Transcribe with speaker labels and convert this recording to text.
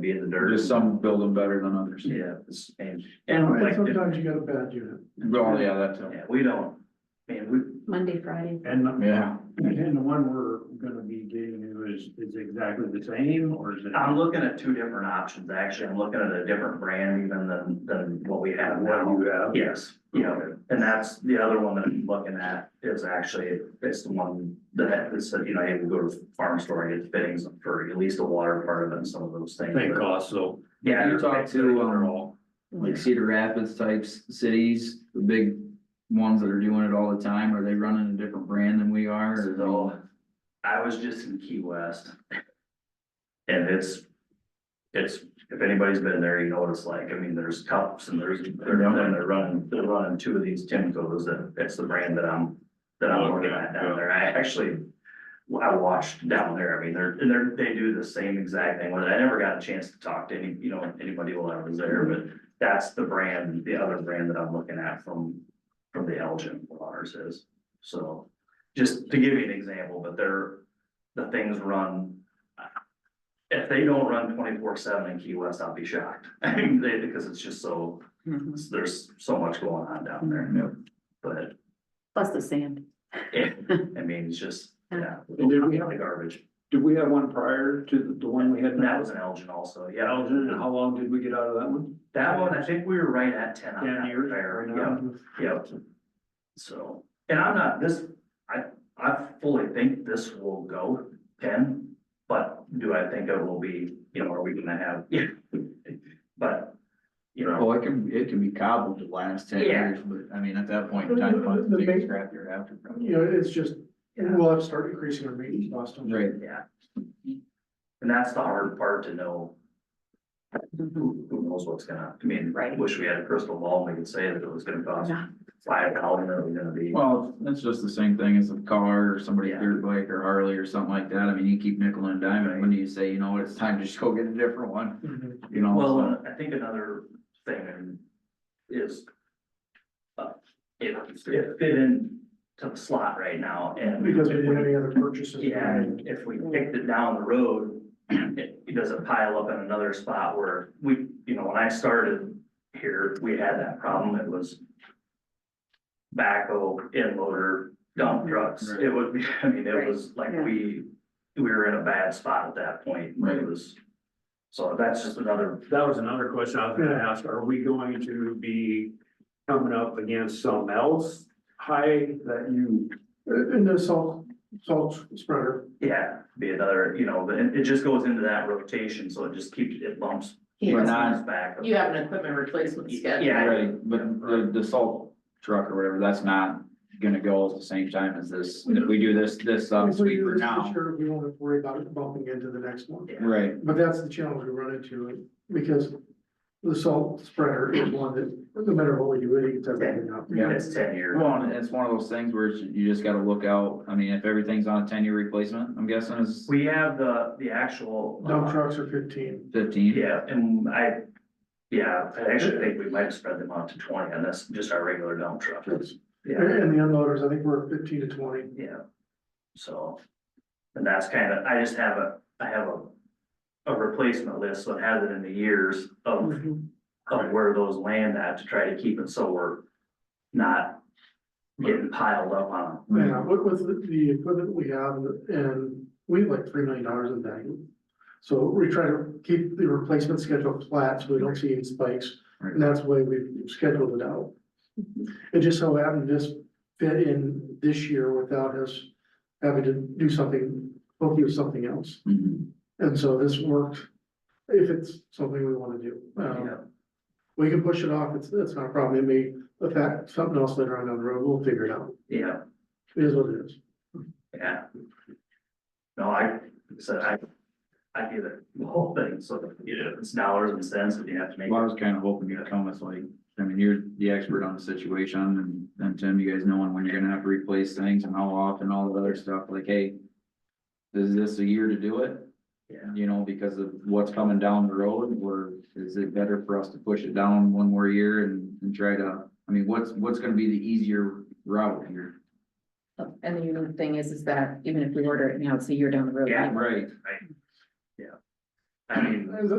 Speaker 1: be in the dirt.
Speaker 2: Just some build them better than others.
Speaker 1: Yeah, it's- and, and like,
Speaker 3: Sometimes you got a bad unit.
Speaker 2: Well, Oh, yeah, that too.
Speaker 1: yeah, we don't, man, we,
Speaker 4: Monday, Friday.
Speaker 3: And,
Speaker 2: Yeah.
Speaker 3: and the one we're gonna be getting you is, is exactly the same, or is it?
Speaker 1: I'm looking at two different options, actually, I'm looking at a different brand even than, than what we have now.
Speaker 3: What you have?
Speaker 1: Yes, yeah, and that's the other one that I'm looking at is actually, it's the one that is, you know, hey, we go to the farm store and get fittings for at least the water part of it and some of those things.
Speaker 3: Think also.
Speaker 1: Yeah.
Speaker 2: You talk to, um, like Cedar Rapids types cities, the big ones that are doing it all the time, are they running a different brand than we are? or is it all-
Speaker 1: So, I was just in Key West. And it's, it's, if anybody's been there, you know what it's like, I mean, there's cups and there's, they're, and they're running, they're running two of these Timcos, and it's the brand that I'm. That I'm looking at down there, I actually, well, I watched down there, I mean, they're, and they're, they do the same exact thing, with it. I never got a chance to talk to any, you know, anybody while I was there, but. That's the brand, the other brand that I'm looking at from, from the Elgin, what ours is, so just to give you an example, but they're, the things run. If they don't run twenty-four seven in Key West, I'll be shocked, I mean, they, because it's just so,
Speaker 2: Mm-hmm.
Speaker 1: there's so much going on down there,
Speaker 2: Yep.
Speaker 1: but,
Speaker 4: Plus the sand.
Speaker 1: yeah, I mean, it's just, yeah.
Speaker 3: And did we have-
Speaker 1: The garbage,
Speaker 3: Did we have one prior to the, the one we had
Speaker 1: and that
Speaker 3: now?
Speaker 1: was an Elgin also, yeah,
Speaker 3: Elgin, and how long did we get out of that one?
Speaker 1: that one, I think we were right at ten on that repair,
Speaker 3: right
Speaker 1: yeah.
Speaker 3: now?
Speaker 1: Yep. So, and I'm not, this, I, I fully think this will go ten, but do I think it will be, you know, are we gonna have, yeah. But, you know,
Speaker 2: Oh, it can, it can be cobbled to last ten
Speaker 1: Yeah.
Speaker 2: years, but I mean, at that point in time, it's the biggest crap you're after. probably.
Speaker 5: You know, it's just,
Speaker 1: Yeah.
Speaker 5: we'll have to start increasing our maintenance cost. on-
Speaker 2: Right,
Speaker 1: yeah. And that's the hard part to know,
Speaker 2: Mm-hmm.
Speaker 1: who, who knows what's gonna, I mean,
Speaker 4: Right.
Speaker 1: wish we had a crystal ball and we could say that it was gonna cost
Speaker 4: Yeah.
Speaker 1: five dollars, and it was gonna be.
Speaker 2: well, that's just the same thing as a car or somebody's
Speaker 1: Yeah.
Speaker 2: dirt bike or Harley or something like that, I mean, you keep nickel and diming, when do you say, you know what, it's time to just go get a different one,
Speaker 5: Mhm.
Speaker 2: you know?
Speaker 1: Well,
Speaker 2: so-
Speaker 1: and I think another thing is. uh, It, it fit in to the slot right now and.
Speaker 5: Because we didn't have any other purchases.
Speaker 1: Yeah, and if we picked it down the road, it, it doesn't pile up in another spot where we, you know, when I started here, we had that problem. It was backhoe, in loader, dump
Speaker 5: Mm-hmm.
Speaker 1: trucks. It would be, I mean, it was like
Speaker 4: Right,
Speaker 1: we, we were in a bad spot at that point.
Speaker 2: Right.
Speaker 1: It was, so that's just another
Speaker 3: That was another question I was gonna ask, are we going to be coming up against something else high that you
Speaker 5: And Uh, the salt, salt spreader.
Speaker 1: Yeah, be another, you know, and it just goes into that rotation, so it just keeps, it bumps.
Speaker 2: But
Speaker 1: it
Speaker 2: not-
Speaker 1: bumps Back.
Speaker 4: You have an equipment replacement schedule.
Speaker 1: Yeah,
Speaker 2: Right, but the, the salt truck or whatever, that's not gonna go at the same time as this, if we do this, this sub
Speaker 5: If we do
Speaker 2: sweeper
Speaker 5: this
Speaker 2: now.
Speaker 5: this year, We won't have to worry about it bumping into the next one.
Speaker 2: Right,
Speaker 5: But that's the challenge we run into, because the salt spreader is one that, no matter what we do, it eats everything up.
Speaker 2: Yeah.
Speaker 1: it's ten year.
Speaker 2: well, and it's one of those things where it's- you just gotta look out, I mean, if everything's on a ten-year replacement, I'm guessing is
Speaker 1: We have the, the actual. uh,
Speaker 5: Dump trucks are fifteen.
Speaker 2: fifteen.
Speaker 1: Yeah, and I, yeah, I actually think we might have spread them out to twenty, and that's just our regular dump truck.
Speaker 5: That's- And
Speaker 1: Yeah,
Speaker 5: and the unloaders, I think we're at fifteen to twenty.
Speaker 1: yeah. So, and that's kind of, I just have a, I have a, a replacement list, so it has it in the years of
Speaker 2: Mm-hmm.
Speaker 1: of where those land at to try to keep it so we're not getting piled up on them.
Speaker 2: Right.
Speaker 5: Yeah, with, with the- the equipment we have and we have like three million dollars in value. So we try to keep the replacement schedule flat so we don't see any spikes. And that's the way we've scheduled it out. It just so happened this fit in this year without us having to do something, hopefully with something else.
Speaker 2: Mhm.
Speaker 5: And so this worked, if it's something we want to do. Um,
Speaker 1: Yeah.
Speaker 5: We can push it off, it's, it's not a problem. It may affect something else later on down the road. We'll figure it out.
Speaker 1: Yeah,
Speaker 5: It is what it is.
Speaker 1: yeah. No, I said, I, I get it, the whole thing, so, you know, it's dollars and cents, and you have to make.
Speaker 2: Well, I was kinda hoping you'd come with like, I mean, you're the expert on the situation, and, and Tim, you guys knowing when you're gonna have to replace things and how often, all the other stuff, like, hey, is this a year to do it?
Speaker 1: Yeah,
Speaker 2: you know, because of what's coming down the road, or is it better for us to push it down one more year and, and try to, I mean, what's, what's gonna be the easier route here?
Speaker 4: And the unique thing is, is that even if we order it now, it's a year down the road.
Speaker 1: Yeah.
Speaker 4: anyway.
Speaker 2: Right.
Speaker 1: I mean.
Speaker 5: Is it-